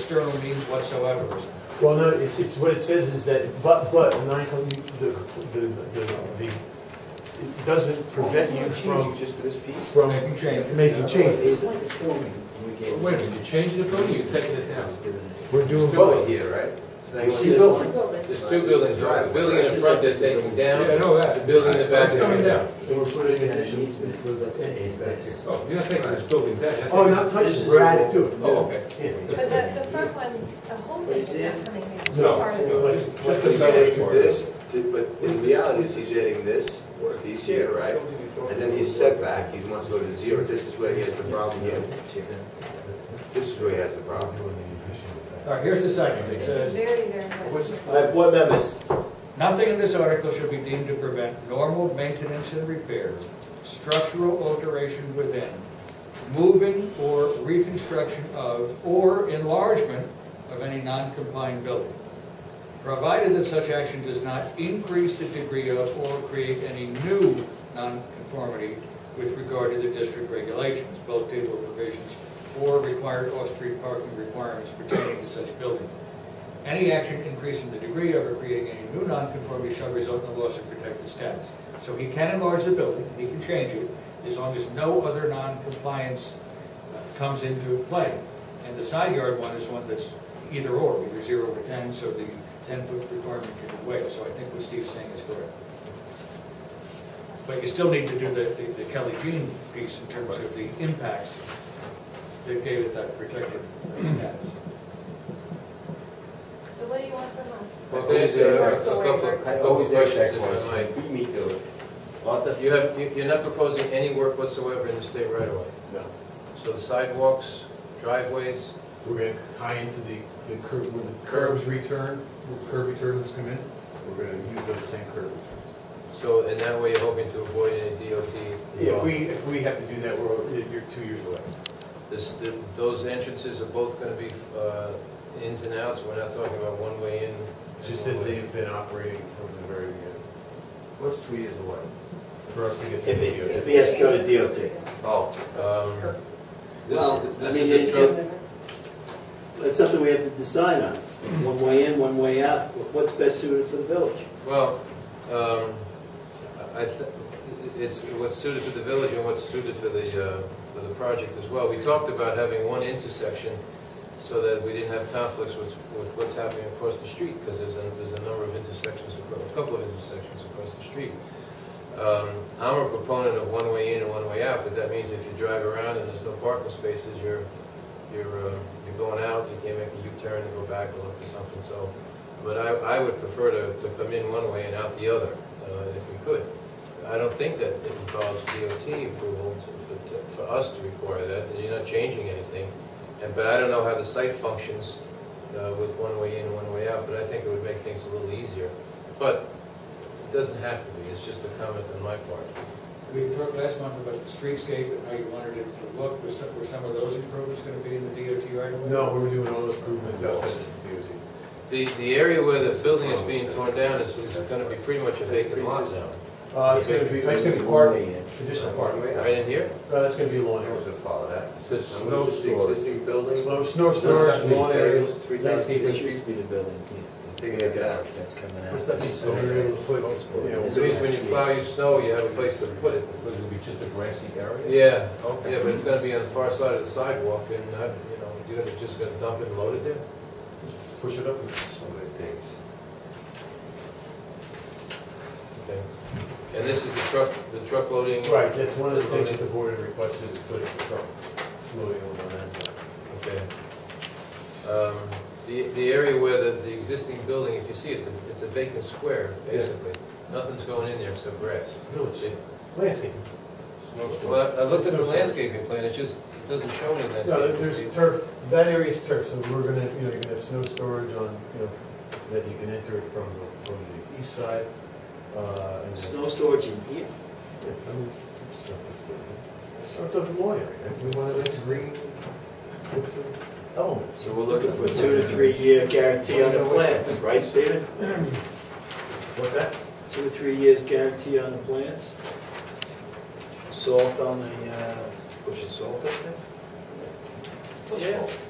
external means whatsoever. or something. Well, no, it- it's, what it says is that, but, but, non the, the, the, the, it doesn't prevent you from, Just to this piece? from Making changes. making changes. Is like the filming we gave. Wait a minute, you changed the building, you're taking it down. We're doing Building both. here, right? Now, We you see see this building. line? There's two buildings, right? the building in front they're taking Yeah, I know that. The building in the back. It's coming down. So we're putting an an addition easement for the, back here. Oh, you're not taking this building down. you're Oh, taking- not touching, This we're is- adding to it. Oh, okay. Yeah. But the, the front one, the whole thing is not coming in. It's No, part of it. no, just, just the He's belly adding to part. this, to- but in reality, is he's adding this piece here, right? And then he's set back, he wants to go to zero, this is where he has the problem here. This is where he has the problem. All right, here's the section. It This is says, very, very what's much. it? board members. Nothing in this article should be deemed to prevent normal maintenance and repair, structural alteration within, moving or reconstruction of, or enlargement of any non-compliant building, provided that such action does not increase the degree of or create any new nonconformity with regard to the district regulations, bulk table provisions, or required off-street parking requirements pertaining to such building. Any action increasing the degree of or creating any new nonconformity shall result in a loss of protected status. So he can enlarge the building, he can change it, as long as no other noncompliance uh, comes into play. And the side yard one is one that's either or, either zero or ten, so the ten-foot requirement can waive. So I think what Steve's saying is correct. But you still need to do the the Kelly Jean piece in terms of the impacts that gave it that protected status. So what do you want from us? Well, there's uh, a couple of, I couple of always ask questions that if I might. question. Me too. You have, you- you're not proposing any work whatsoever in the state right away. No. So the sidewalks, driveways, We're gonna tie into the, the curb, when the curbs return, when curb returns come in, we're gonna use those same curb returns. so in that way you're hoping to avoid any DOT. If we, if we have to do that, we're, over- you're two years away. This, the- those entrances are both going to be uh, ins and outs, we're not talking about one way in. and It just one says way- they've been operating from the very beginning, What's two years away? for us to get to If the it, DOT. if he has to go to DOT. Oh, Um, Well, This, I this mean, is a it, truck, it, it's something we have to decide on, one way in, one way out, what's best suited for the village? well, um, I, th- it's what's suited for the village and what's suited for the, uh, for the project as well. We talked about having one intersection so that we didn't have conflicts with, with what's happening across the street, because there's a, there's a number of intersections, acro- a couple of intersections across the street. Um, I'm a proponent of one way in and one way out, but that means if you drive around and there's no parking spaces, you're, you're, uh, you're going out, you can't make a U-turn and go back and look for something, so. But I, I would prefer to, to come in one way and out the other, uh, if we could. I don't think that it involves DOT approval to- for, to- for us to require that, and you're not changing anything. And, but I don't know how the site functions uh, with one way in, one way out, but I think it would make things a little easier. But it doesn't have to be, it's just a comment on my part. We talked last month about the streetscape and how you wanted it to look. Was some, were some of those improvements gonna be in the DOT right away? No, we were doing all those improvements outside the DOT. The, the area where the building is being torn down is, is gonna be pretty much a vacant lot now, Uh, it's gonna be, that's gonna be parking, additional parking. Right. right in here? Uh, that's gonna be I lawn was area. gonna follow that. Says And what is the existing building? Snow, snow storage, lawn area. Three Landscape, thousand this feet. used to be the building, Take it out. that's coming What's that mean? So we're able to put, you know, It means when you plow your snow, you have a place to put it. Because it'll be just a grassy area? Yeah, oh, Okay. yeah, but it's gonna be on the far side of the sidewalk, and, I- you know, you're gonna- just gonna dump it and load it there? push it up. So many things. Okay. And this is the truck, the truck loading? Right, that's one of the things that the board had requested, is putting the truck loading on that side. Okay. Um, The, the area where the, the existing building, if you see, it's a, it's a vacant square, Yeah. basically. Nothing's going in there except grass. Village, landscape. Well, I I looked at the Snowstorm. landscaping plan, it just, it doesn't show any No, landscaping. there's turf, that area is turf, so we're gonna, you know, you're gonna have snow storage on, you know, that you can enter it from, the- from the east side. uh, and then- Snow storage in here? Yeah, I mean, stuff that's there. It Starts on the lawn area, right? we want a nice green, with some elements. So we're looking for two to three year guarantee on the plans, right, Stephen? What's that? Two to three years guarantee on the plans? Salt on the, uh, push of salt up there? Yeah.